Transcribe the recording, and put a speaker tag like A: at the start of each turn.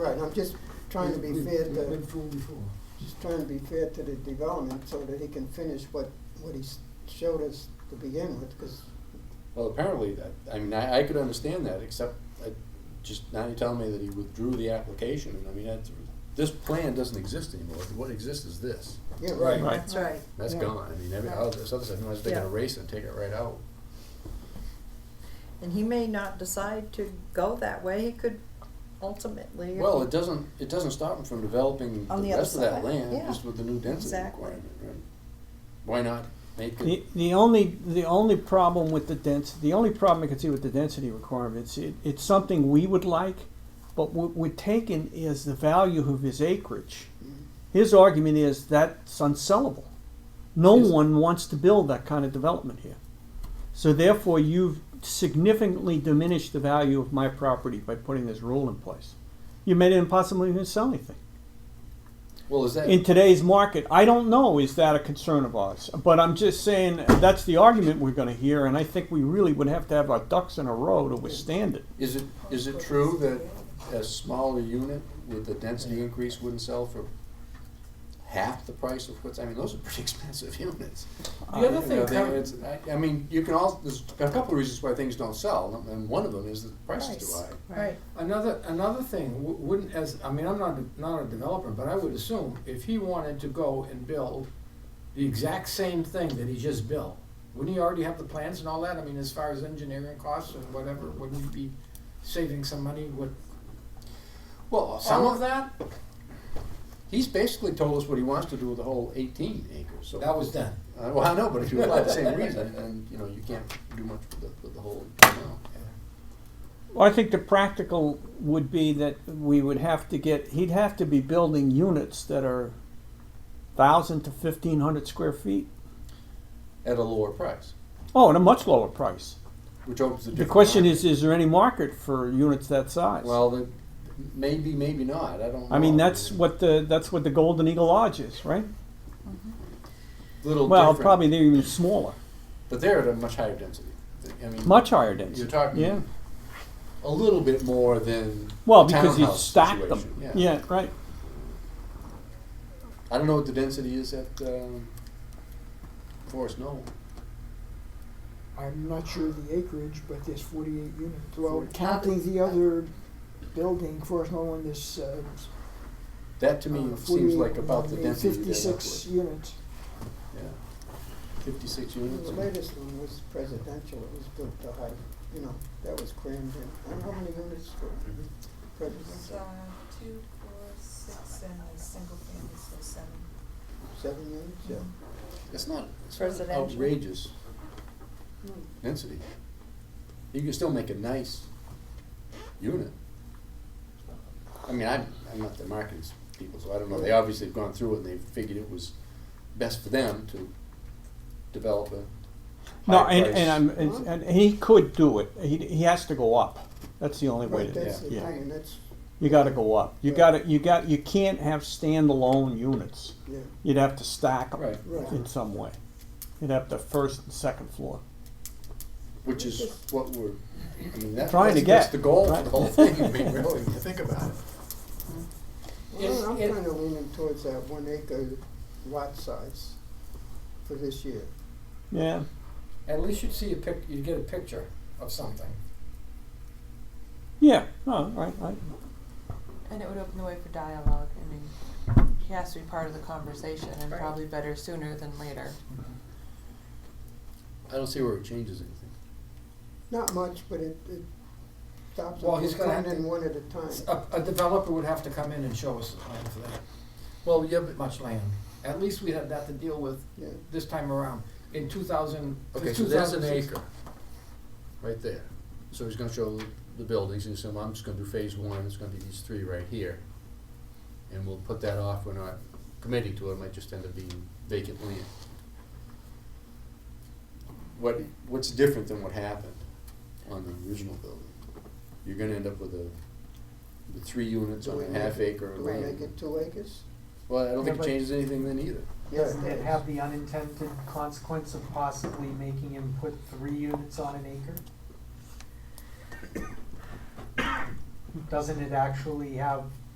A: Right, I'm just trying to be
B: We've-
A: fair
B: We've
A: to,
B: been fooled before.
A: just trying to be fair to the development so that he can finish what, what he s- showed us to begin with, because,
C: Well, apparently that, I mean, I, I could understand that, except I, just now you're telling me that he withdrew the application, and I mean, that's, this plan doesn't exist anymore. What exists is this.
A: yeah,
B: Right.
A: right.
D: That's right.
C: That's
B: Yeah.
C: gone. I mean, every, all this other stuff, you might as well take
D: Yeah.
C: an erase and take it right out.
D: And he may not decide to go that way. He could ultimately.
C: Well, it doesn't, it doesn't stop him from developing
D: On
C: the
D: the other
C: rest of that
D: side,
C: land,
D: yeah.
C: just with the new density
D: Exactly.
C: requirement, right? Why not make
E: The,
C: it,
E: the only, the only problem with the dens, the only problem I can see with the density requirements, it, it's something we would like, but what we're taking is the value of his acreage. His argument is that's unsellable. No
C: Yes.
E: one wants to build that kind of development here. So therefore, you've significantly diminished the value of my property by putting this rule in place. You made it impossible even to sell anything
C: well, is that,
E: in today's market. I don't know, is that a concern of ours? But I'm just saying, that's the argument we're gonna hear, and I think we really would have to have our ducks in a row to withstand it.
C: is it, is it true that a smaller unit with the density increase wouldn't sell for half the price of what's, I mean, those are pretty expensive units.
E: The other
C: You know, they- it's- I, I mean, you can all, there's a couple of reasons why things don't sell, and one of them is that the price is too
D: Price.
C: high.
D: Right.
B: Another, another thing, w- wouldn't as, I mean, I'm not, a- not a developer, but I would assume if he wanted to go and build the exact same thing that he just built, wouldn't he already have the plans and all that? I mean, as far as engineering costs and whatever, wouldn't he be saving some money with
C: Well,
B: some
C: all
B: of that?
C: He's basically told us what he wants to do with the whole 18 acres. So
B: That was done.
C: Uh, well, I know, but if you apply the same reason, then you know you can't do much with the, with the whole amount.
E: Well, I think the practical would be that we would have to get, he'd have to be building units that are thousand to fifteen hundred square feet.
C: at a lower price,
E: Oh, and a much lower price.
C: which opens the.
E: The question is, is there any market for units that size?
C: well, the, maybe, maybe not. I don't.
E: I mean,
C: know.
E: that's what the, that's what the Golden Eagle Lodge is, right?
C: little
E: Well,
C: different,
E: probably they're even smaller,
C: But they're at a much higher density. I mean,
E: much higher density.
C: You're talking
E: Yeah.
C: a little bit more than
E: Well, because you
C: townhouse
E: stack them.
C: situation,
E: Yeah.
C: Yeah.
E: right.
C: I don't know what the density is at um, Forest Knoll.
F: I'm not sure of the acreage, but there's forty-eight units. Well,
C: Forty-
F: counting the other building, Forest Knoll and this, uh,
C: That to me
F: uh,
C: seems like
F: 48,
C: about the density.
F: uh,
C: that that's
F: Fifty-six units.
C: what- Yeah. Fifty-six units.
A: The latest one was presidential, it was built to height, you know, that was crammed in, I don't know how many units were
B: Mm-hmm.
G: So,
A: presidential,
G: two, four, six, and a single family, so seven.
A: seven units, yeah.
C: It's not, it's not
D: Residential.
C: outrageous
A: No.
C: density. You can still make a nice unit. I mean, I'm, I'm not the marketing people, so I don't know, they obviously have gone through it and they figured it was best for them to develop a
E: No,
C: high
E: and,
C: price.
E: and I'm and, and he could do it. He, he has to go up. That's the only way
A: Right,
E: to do
A: that's
E: it.
A: the
E: Yeah.
A: thing, and that's,
E: You got to go up. You
A: Yeah.
E: got to you got you can't have standalone units.
A: yeah,
E: You'd have to stack 'em
C: Right,
A: right,
E: in some way. You'd have the first and second floor.
C: which is what we're, I mean, that,
E: Trying
C: that's,
E: to
C: that's
E: get,
C: the goal for
E: right.
C: the whole thing, I mean, really, when you think about it.
B: If-
A: well, I'm
B: if-
A: kinda leaning towards that one acre lot size for this year.
E: Yeah.
B: At least you'd see a pic, you'd get a picture of something.
E: Yeah. Oh, right. right.
H: And it would open the way for dialogue. I mean, he has to be part of the conversation and
D: Right.
H: probably better sooner than later.
C: I don't see where it changes anything.
A: Not much, but it, it stops
B: Well,
A: them
B: he's
A: from
B: gonna have
A: coming in
B: to-
A: one at a time.
B: A, a developer would have to come in and show us the plan for that. Well, yeah, but. Much land. At least we had that to deal with
A: Yeah,
B: this time around. In two thousand,
C: Okay, so that's an acre, right there. So he's gonna show the buildings, and so I'm just gonna do phase one, it's gonna be these three right here. And we'll put that off, we're not committing to it, it might just end up being vacant land. What, what's different than what happened on the original building? You're gonna end up with a, with three units
A: Do
C: on
A: we
C: a
A: make
C: half
A: it-
C: acre of
A: do we make it
C: land.
A: two acres?
C: Well, I don't think
I: Yeah,
C: it
I: but-
C: changes anything then either.
I: Doesn't
A: Yeah.
I: it have the unintended consequence of possibly making him put three units on an acre? Doesn't it actually have